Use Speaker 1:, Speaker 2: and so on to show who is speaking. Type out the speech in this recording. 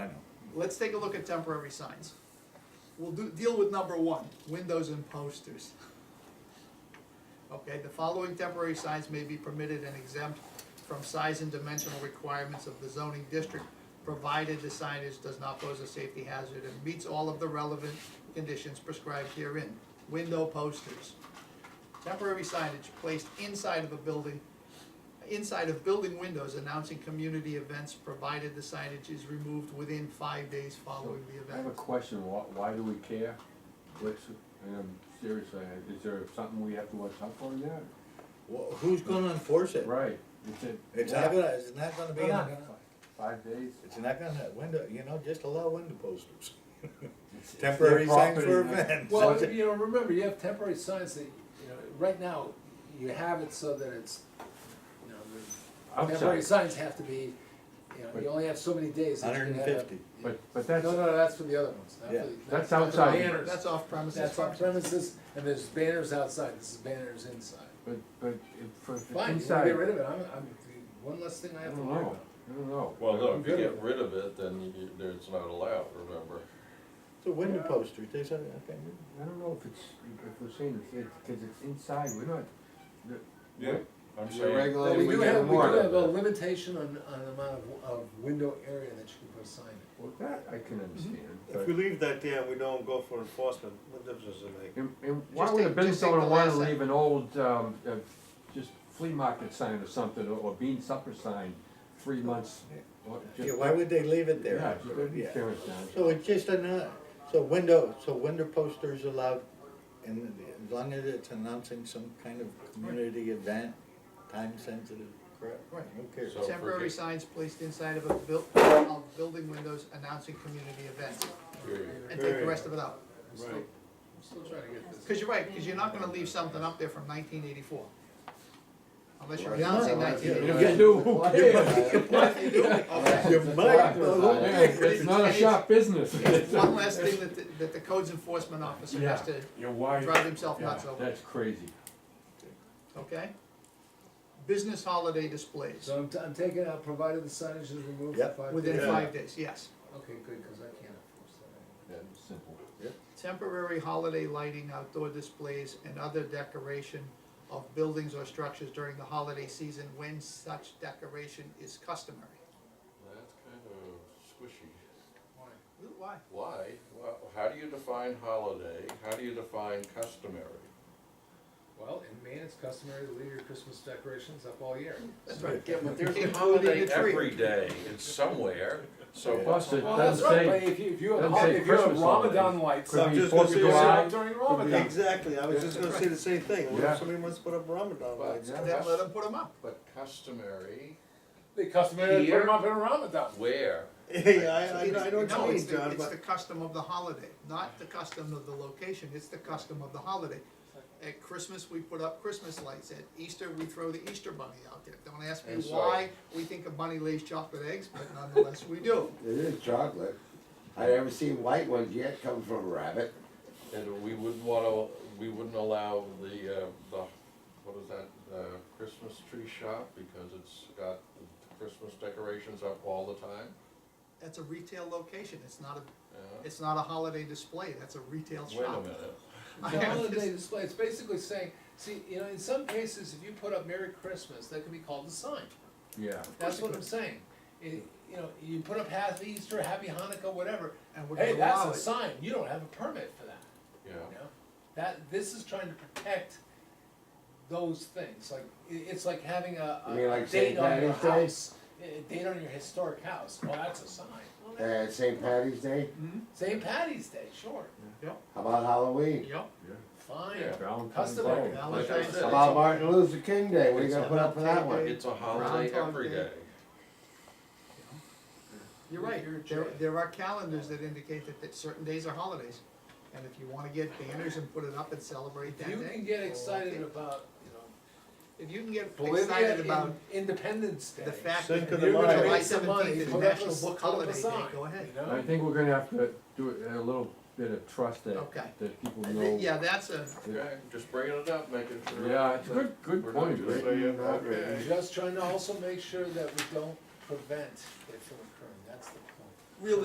Speaker 1: let's take a look at temporary signs. We'll do, deal with number one, windows and posters. Okay, the following temporary signs may be permitted and exempt from size and dimensional requirements of the zoning district, provided the signage does not pose a safety hazard and meets all of the relevant conditions prescribed herein. Window posters. Temporary signage placed inside of a building inside of building windows announcing community events, provided the signage is removed within five days following the
Speaker 2: I have a
Speaker 1: event.
Speaker 2: question, why, why do we care? What's, and I'm serious, I- is there something we have to watch out for there?
Speaker 3: Well, who's gonna enforce it?
Speaker 2: Right, it's at
Speaker 3: It's not gonna, it's not gonna be,
Speaker 2: Yeah.
Speaker 3: in-
Speaker 2: five days?
Speaker 3: it's not gonna, window, you know, just allow window posters.
Speaker 2: It's- it's their
Speaker 3: Temporary signs
Speaker 2: property,
Speaker 3: for
Speaker 2: not-
Speaker 3: events.
Speaker 4: Well, you know, remember, you have temporary signs that, you know, right now, you have it so that it's, you know, the temporary
Speaker 2: Outside,
Speaker 4: signs have to be, you know,
Speaker 2: But-
Speaker 4: you only have so many days. that you
Speaker 3: Hundred
Speaker 4: can
Speaker 3: and
Speaker 4: have a-
Speaker 3: fifty.
Speaker 2: but, but
Speaker 4: No,
Speaker 2: that's,
Speaker 4: no, no, that's for the other ones. not for the-
Speaker 3: Yeah.
Speaker 2: That's
Speaker 4: not for the
Speaker 2: outside.
Speaker 4: banners.
Speaker 1: That's off premises.
Speaker 4: That's on premises, and there's banners outside, this is banners inside.
Speaker 2: but, but if- for, if it's
Speaker 4: Fine, you
Speaker 2: inside,
Speaker 4: wanna
Speaker 2: I
Speaker 4: get rid of it, I'm, I'm, one less thing I have to
Speaker 2: don't
Speaker 4: worry
Speaker 2: know,
Speaker 4: about.
Speaker 2: I don't know.
Speaker 5: Well, no,
Speaker 4: I'm
Speaker 5: if you
Speaker 4: good
Speaker 5: get
Speaker 4: with
Speaker 5: rid of it, then you, you- it's not allowed, remember?
Speaker 3: So window
Speaker 4: Yeah.
Speaker 3: posters, they said, okay.
Speaker 2: I don't know if it's, if we're saying it's, it's, cause it's inside, we're not. the-
Speaker 5: Yeah, I'm
Speaker 2: We're
Speaker 5: saying,
Speaker 4: Well,
Speaker 2: regulating,
Speaker 4: we
Speaker 2: we
Speaker 4: do
Speaker 2: get a
Speaker 4: have, we do have a
Speaker 2: warrant.
Speaker 4: limitation on, on the amount of, of window area that you can put a sign in.
Speaker 2: Well, that I
Speaker 1: Mm-hmm.
Speaker 2: can understand,
Speaker 6: If
Speaker 2: but,
Speaker 6: we leave that there, we don't go for enforcement, what difference does it make?
Speaker 2: and, and why
Speaker 1: Just
Speaker 2: would a
Speaker 1: take-
Speaker 2: business
Speaker 1: just take
Speaker 2: owner
Speaker 1: the
Speaker 2: wanna
Speaker 1: last sentence.
Speaker 2: leave an old, um, uh, just flea market sign or something, or- or bean supper sign, three months? or just-
Speaker 3: Yeah, why would they leave it
Speaker 2: Yeah,
Speaker 3: there?
Speaker 2: just let me
Speaker 3: Yeah.
Speaker 2: tear it down.
Speaker 3: So it's just a, so window, so window posters allowed, and as long as it's announcing some kind of community event, time sensitive, correct?
Speaker 1: Right.
Speaker 3: Who cares?
Speaker 5: So-
Speaker 1: Temporary
Speaker 5: forget-
Speaker 1: signs placed inside of a buil- of building windows announcing community events,
Speaker 5: period.
Speaker 1: and take the rest of it out.
Speaker 4: I'm still-
Speaker 6: Right.
Speaker 4: I'm still trying to get this.
Speaker 1: Cause you're right, cause you're not gonna leave something up there from nineteen eighty-four. Unless you're
Speaker 2: Right.
Speaker 1: announcing
Speaker 2: Yeah,
Speaker 1: nineteen
Speaker 2: yeah.
Speaker 1: eighty-four.
Speaker 2: You do.
Speaker 3: You might,
Speaker 2: Yeah, It's not a shop business.
Speaker 1: One last thing that, the- that the codes enforcement officer has to
Speaker 2: Your wife.
Speaker 1: drive himself nuts
Speaker 2: Yeah,
Speaker 1: over.
Speaker 2: That's crazy.
Speaker 1: okay? Business holiday displays,
Speaker 4: So I'm, t- I'm taking out, provided the signage is removed for
Speaker 3: Yep,
Speaker 4: five days.
Speaker 1: within
Speaker 6: Yeah.
Speaker 1: five days, yes.
Speaker 4: Okay, good, cause I can't enforce that.
Speaker 2: That was simple.
Speaker 1: Temporary holiday lighting, outdoor displays, and other decoration of buildings or structures during the holiday season when such decoration is customary.
Speaker 5: That's kind of squishy.
Speaker 1: Why?
Speaker 5: Why? Well, how do you define holiday? How do you define customary?
Speaker 4: Well, in Maine, it's customary to leave your Christmas decorations up all year.
Speaker 1: That's right.
Speaker 5: Yeah, but there's
Speaker 1: Including
Speaker 5: a
Speaker 1: the
Speaker 5: holiday
Speaker 1: tree.
Speaker 5: every day, it's somewhere, so.
Speaker 3: Yeah.
Speaker 2: Plus, it
Speaker 4: Well, that's
Speaker 2: doesn't
Speaker 4: right, but
Speaker 2: say,
Speaker 4: if you, if you have,
Speaker 2: doesn't say
Speaker 4: if you have
Speaker 2: Christmas
Speaker 4: Ramadan
Speaker 2: holidays.
Speaker 4: lights
Speaker 2: could
Speaker 6: I'm
Speaker 4: up
Speaker 2: be
Speaker 6: just
Speaker 2: Fourth of
Speaker 6: gonna say it's
Speaker 2: July.
Speaker 4: up during
Speaker 2: could be-
Speaker 4: Ramadan.
Speaker 6: Exactly, I was just gonna say the same thing, what
Speaker 2: Yeah.
Speaker 6: if somebody wants to put up Ramadan
Speaker 5: But
Speaker 6: lights?
Speaker 1: And then let
Speaker 5: cus-
Speaker 1: them put them up.
Speaker 5: but customary,
Speaker 4: They customarily put
Speaker 5: Here.
Speaker 4: them up in Ramadan.
Speaker 5: where?
Speaker 6: Yeah, I, I I
Speaker 1: It's-
Speaker 6: know what
Speaker 1: no,
Speaker 6: you
Speaker 1: it's
Speaker 6: mean,
Speaker 1: the-
Speaker 6: John,
Speaker 1: It's the
Speaker 6: but
Speaker 1: custom of the holiday, not the custom of the location, it's the custom of the holiday. At Christmas, we put up Christmas lights, at Easter, we throw the Easter bunny out there. Don't ask me
Speaker 5: And so-
Speaker 1: why we think a bunny lays chocolate eggs, but nonetheless, we do.
Speaker 7: It is chocolate. I haven't seen white ones yet come from a rabbit.
Speaker 5: And we wouldn't wanna, we wouldn't allow the, uh, the, what is that, uh, Christmas tree shop, because it's got Christmas decorations up all the time,
Speaker 1: That's a retail location, it's not a,
Speaker 5: yeah?
Speaker 1: it's not a holiday display, that's a retail
Speaker 5: Wait a
Speaker 1: shop.
Speaker 5: minute.
Speaker 4: The
Speaker 1: I am
Speaker 4: holiday
Speaker 1: just-
Speaker 4: display, it's basically saying, see, you know, in some cases, if you put up Merry Christmas, that can be called a sign.
Speaker 2: yeah.
Speaker 4: That's what I'm saying. It, you know, you put up Happy Easter, Happy Hanukkah, whatever.
Speaker 1: And we're
Speaker 4: Hey,
Speaker 1: gonna
Speaker 4: that's
Speaker 1: allow
Speaker 4: a
Speaker 1: it.
Speaker 4: sign. You don't have a permit for that, you
Speaker 5: Yeah,
Speaker 4: know? That, this is trying to protect those things. Like, i it's like having a,
Speaker 7: You mean
Speaker 4: a
Speaker 7: like
Speaker 4: date
Speaker 7: Saint
Speaker 4: on your
Speaker 7: Patty's Day?
Speaker 4: house. A a date on your historic house. Well, that's a sign.
Speaker 7: Uh, St. Patty's Day.
Speaker 1: Hmm?
Speaker 4: St. Patty's Day, sure,
Speaker 7: How about Halloween?
Speaker 1: Yep,
Speaker 4: fine.
Speaker 5: Yeah.
Speaker 2: Valentine's
Speaker 4: Customary.
Speaker 2: Day.
Speaker 1: Valentine's
Speaker 5: like I
Speaker 1: Day.
Speaker 7: How
Speaker 5: said,
Speaker 7: about Martin Luther King Day? What are you gonna put up for that one?
Speaker 5: it's a holiday
Speaker 1: Groundhog
Speaker 5: every
Speaker 1: Day.
Speaker 5: day.
Speaker 1: You're right, there, there are calendars that indicate that, that certain days are holidays. And if you wanna get banners and put it up and celebrate that
Speaker 4: You
Speaker 1: day,
Speaker 4: can get excited
Speaker 1: okay.
Speaker 4: about, you
Speaker 1: If you can get
Speaker 4: know, Bolivia
Speaker 1: excited about
Speaker 4: in- Independence Day.
Speaker 1: the fact that
Speaker 6: Cinco de
Speaker 1: you're gonna
Speaker 6: Mayo.
Speaker 1: July
Speaker 4: Make some money,
Speaker 1: seventeenth is
Speaker 4: put up a
Speaker 1: National
Speaker 4: s-
Speaker 1: Book
Speaker 4: put up a
Speaker 1: Holiday Day,
Speaker 4: sign.
Speaker 1: go ahead.
Speaker 4: You know?
Speaker 2: I think we're gonna have to do a little bit of trust that,
Speaker 1: Okay.
Speaker 2: that people
Speaker 1: I
Speaker 2: know.
Speaker 1: think- Yeah, that's a,
Speaker 5: Okay, just bringing it up, making sure.
Speaker 2: Yeah, it's a good,
Speaker 5: We're
Speaker 2: good
Speaker 5: not
Speaker 2: point,
Speaker 5: just
Speaker 2: Rick.
Speaker 5: saying,
Speaker 7: Not
Speaker 5: okay.
Speaker 4: Just trying to also make sure that we don't prevent it from